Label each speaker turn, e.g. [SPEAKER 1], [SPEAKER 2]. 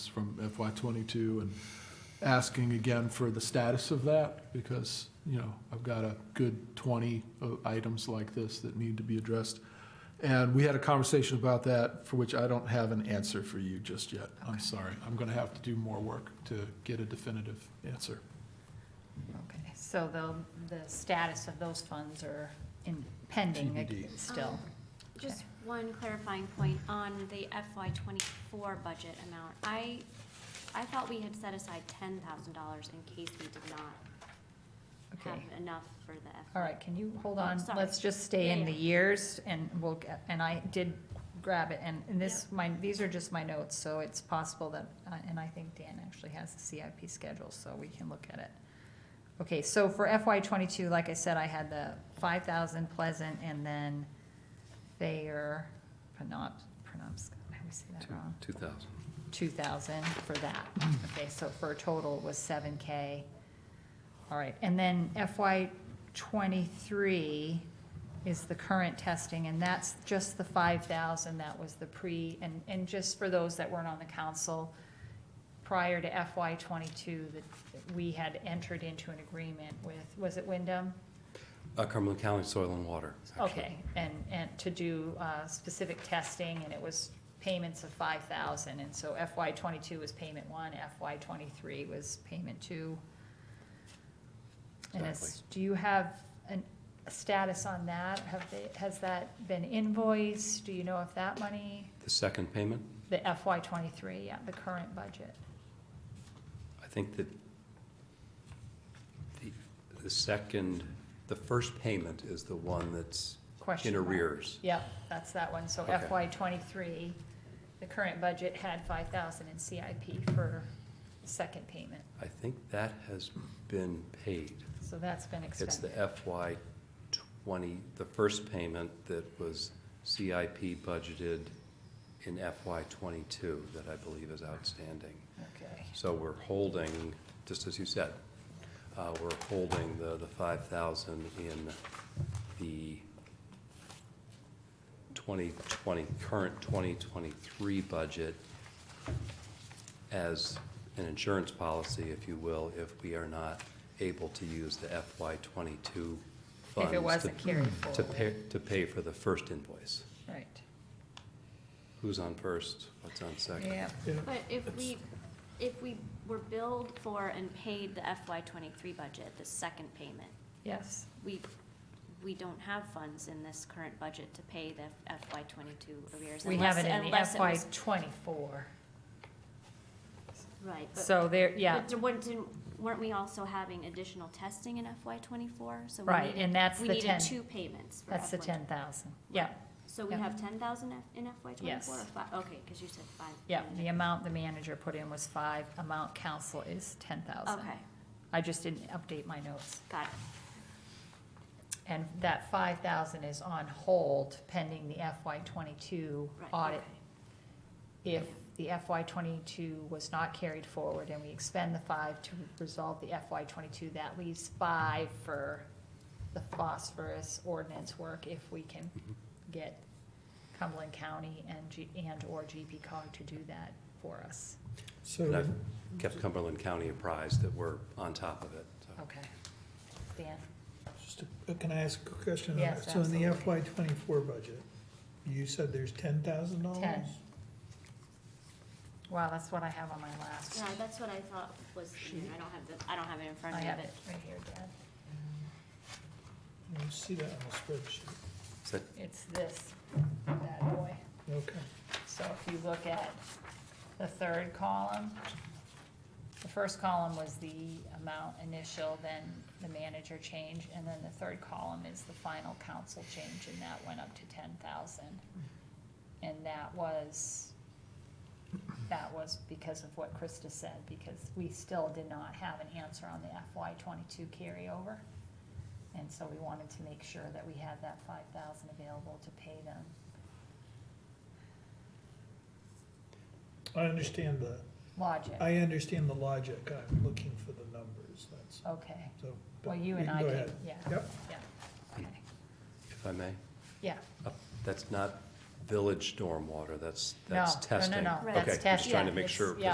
[SPEAKER 1] from FY twenty-two and asking again for the status of that because, you know, I've got a good twenty of items like this that need to be addressed. And we had a conversation about that for which I don't have an answer for you just yet. I'm sorry. I'm going to have to do more work to get a definitive answer.
[SPEAKER 2] Okay, so the, the status of those funds are in pending ag-
[SPEAKER 1] TBD.
[SPEAKER 2] still.
[SPEAKER 3] Just one clarifying point on the FY twenty-four budget amount. I, I thought we had set aside ten thousand dollars in case we did not have
[SPEAKER 2] Okay,
[SPEAKER 3] enough for the FY.
[SPEAKER 2] all right, can you hold
[SPEAKER 3] Oh,
[SPEAKER 2] on?
[SPEAKER 3] sorry.
[SPEAKER 2] Let's just stay in
[SPEAKER 3] Yeah,
[SPEAKER 2] the
[SPEAKER 3] yeah.
[SPEAKER 2] years and we'll, get- and I did grab it and and this, my, these are just my notes, so it's possible that, uh, and I think Dan actually has the CIP schedule, so we can look at it. Okay, so for FY twenty-two, like I said, I had the five thousand Pleasant and then Thayer, Penobs, Penobs, I always say that wrong.
[SPEAKER 4] Two thousand.
[SPEAKER 2] two thousand for that. Okay, so for a total was seven K. All right, and then FY twenty-three is the current testing, and that's just the five thousand, that was the pre, and, and just for those that weren't on the council, prior to FY twenty-two, that we had entered into an agreement with, was it Wyndham?
[SPEAKER 4] Uh, Cumberland County Soil and Water. actually.
[SPEAKER 2] Okay, and, and to do uh, specific testing, and it was payments of five thousand, and so FY twenty-two was payment one, FY twenty-three was payment two. And it's, do you have an, a status on that? Have they, has that been invoiced? Do you know if that money,
[SPEAKER 4] The second payment,
[SPEAKER 2] the FY twenty-three, yeah, the current budget?
[SPEAKER 4] I think that the, the second, the first payment is the one that's
[SPEAKER 2] Question
[SPEAKER 4] in
[SPEAKER 2] mark.
[SPEAKER 4] arrears.
[SPEAKER 2] Yep, that's that one, so
[SPEAKER 4] Okay.
[SPEAKER 2] FY twenty-three, the current budget had five thousand in CIP for second payment.
[SPEAKER 4] I think that has been paid.
[SPEAKER 2] So that's been
[SPEAKER 4] It's the
[SPEAKER 2] expended.
[SPEAKER 4] FY twenty, the first payment that was CIP budgeted in FY twenty-two that I believe is outstanding.
[SPEAKER 2] Okay,
[SPEAKER 4] So we're holding, just as you said, uh, we're holding the, the five thousand in the twenty twenty, current twenty twenty-three budget as an insurance policy, if you will, if we are not able to use the FY twenty-two funds.
[SPEAKER 2] if it
[SPEAKER 4] to-
[SPEAKER 2] wasn't carried
[SPEAKER 4] To
[SPEAKER 2] forward,
[SPEAKER 4] pay, to pay for the first invoice.
[SPEAKER 2] right,
[SPEAKER 4] Who's on first? What's on second?
[SPEAKER 2] yeah,
[SPEAKER 3] But if we, if we were billed for and paid the FY twenty-three budget, the second payment,
[SPEAKER 2] yes,
[SPEAKER 3] we, we don't have funds in this current budget to pay the FY twenty-two arrears.
[SPEAKER 2] we
[SPEAKER 3] unless-
[SPEAKER 2] have it in the
[SPEAKER 3] unless it
[SPEAKER 2] FY
[SPEAKER 3] was-
[SPEAKER 2] twenty-four,
[SPEAKER 3] Right, but
[SPEAKER 2] so there, yeah,
[SPEAKER 3] But there weren't, didn't- weren't we also having additional testing in FY twenty-four? So we
[SPEAKER 2] right,
[SPEAKER 3] needed-
[SPEAKER 2] and that's
[SPEAKER 3] We
[SPEAKER 2] the ten,
[SPEAKER 3] needed two payments for
[SPEAKER 2] that's the
[SPEAKER 3] FY.
[SPEAKER 2] ten thousand, yeah,
[SPEAKER 3] So we
[SPEAKER 2] yeah.
[SPEAKER 3] have ten thousand in FY
[SPEAKER 2] Yes.
[SPEAKER 3] twenty-four or five? Okay, because you said five.
[SPEAKER 2] yeah, the
[SPEAKER 3] million.
[SPEAKER 2] amount the manager put in was five, amount council is ten thousand.
[SPEAKER 3] Okay,
[SPEAKER 2] I just didn't update my notes,
[SPEAKER 3] got it.
[SPEAKER 2] and that five thousand is on hold pending the FY twenty-two
[SPEAKER 3] Right,
[SPEAKER 2] audit
[SPEAKER 3] okay.
[SPEAKER 2] if the FY twenty-two was not carried forward and we expend the five to resolve the FY twenty-two, that leaves five for the phosphorus ordinance work if we can
[SPEAKER 4] Mhm.
[SPEAKER 2] get Cumberland County and G, and/or GP cog to do that for us.
[SPEAKER 4] And
[SPEAKER 5] So,
[SPEAKER 4] I've
[SPEAKER 2] Mm-hmm.
[SPEAKER 4] kept Cumberland County apprised that we're on top of it, so.
[SPEAKER 2] Okay. Dan?
[SPEAKER 5] just, a- uh, can I ask a quick question? on that?
[SPEAKER 2] Yes,
[SPEAKER 5] So in the
[SPEAKER 2] absolutely.
[SPEAKER 5] FY twenty-four budget, you said there's ten thousand dollars?
[SPEAKER 2] Wow, that's what I have on my last.
[SPEAKER 3] No, that's what I thought was, in there. I don't have the, I don't have it in front
[SPEAKER 2] I
[SPEAKER 3] of me,
[SPEAKER 2] have
[SPEAKER 3] but
[SPEAKER 2] it right here, Dan.
[SPEAKER 5] You see that on the spreadsheet,
[SPEAKER 4] Is that
[SPEAKER 2] It's this, bad boy.
[SPEAKER 5] okay.
[SPEAKER 2] So if you look at the third column, the first column was the amount initial, then the manager change, and then the third column is the final council change, and that went up to ten thousand. And that was, that was because of what Krista said, because we still did not have an answer on the FY twenty-two carryover. And so we wanted to make sure that we had that five thousand available to pay them.
[SPEAKER 5] I understand the,
[SPEAKER 2] Logic,
[SPEAKER 5] I understand the logic, I'm looking for the numbers, that's,
[SPEAKER 2] okay.
[SPEAKER 5] so. but
[SPEAKER 2] Well, you
[SPEAKER 5] we
[SPEAKER 2] and
[SPEAKER 5] can
[SPEAKER 2] I
[SPEAKER 5] go
[SPEAKER 2] did,
[SPEAKER 5] ahead.
[SPEAKER 2] yeah,
[SPEAKER 5] Yep,
[SPEAKER 2] yeah, okay,
[SPEAKER 4] If I may,
[SPEAKER 2] yeah.
[SPEAKER 4] Uh, that's not village stormwater, that's,
[SPEAKER 2] No,
[SPEAKER 4] that's
[SPEAKER 2] no, no,
[SPEAKER 4] testing.
[SPEAKER 2] no,
[SPEAKER 3] that's
[SPEAKER 4] Okay, just trying
[SPEAKER 3] testing.
[SPEAKER 4] to make sure.
[SPEAKER 2] Yeah,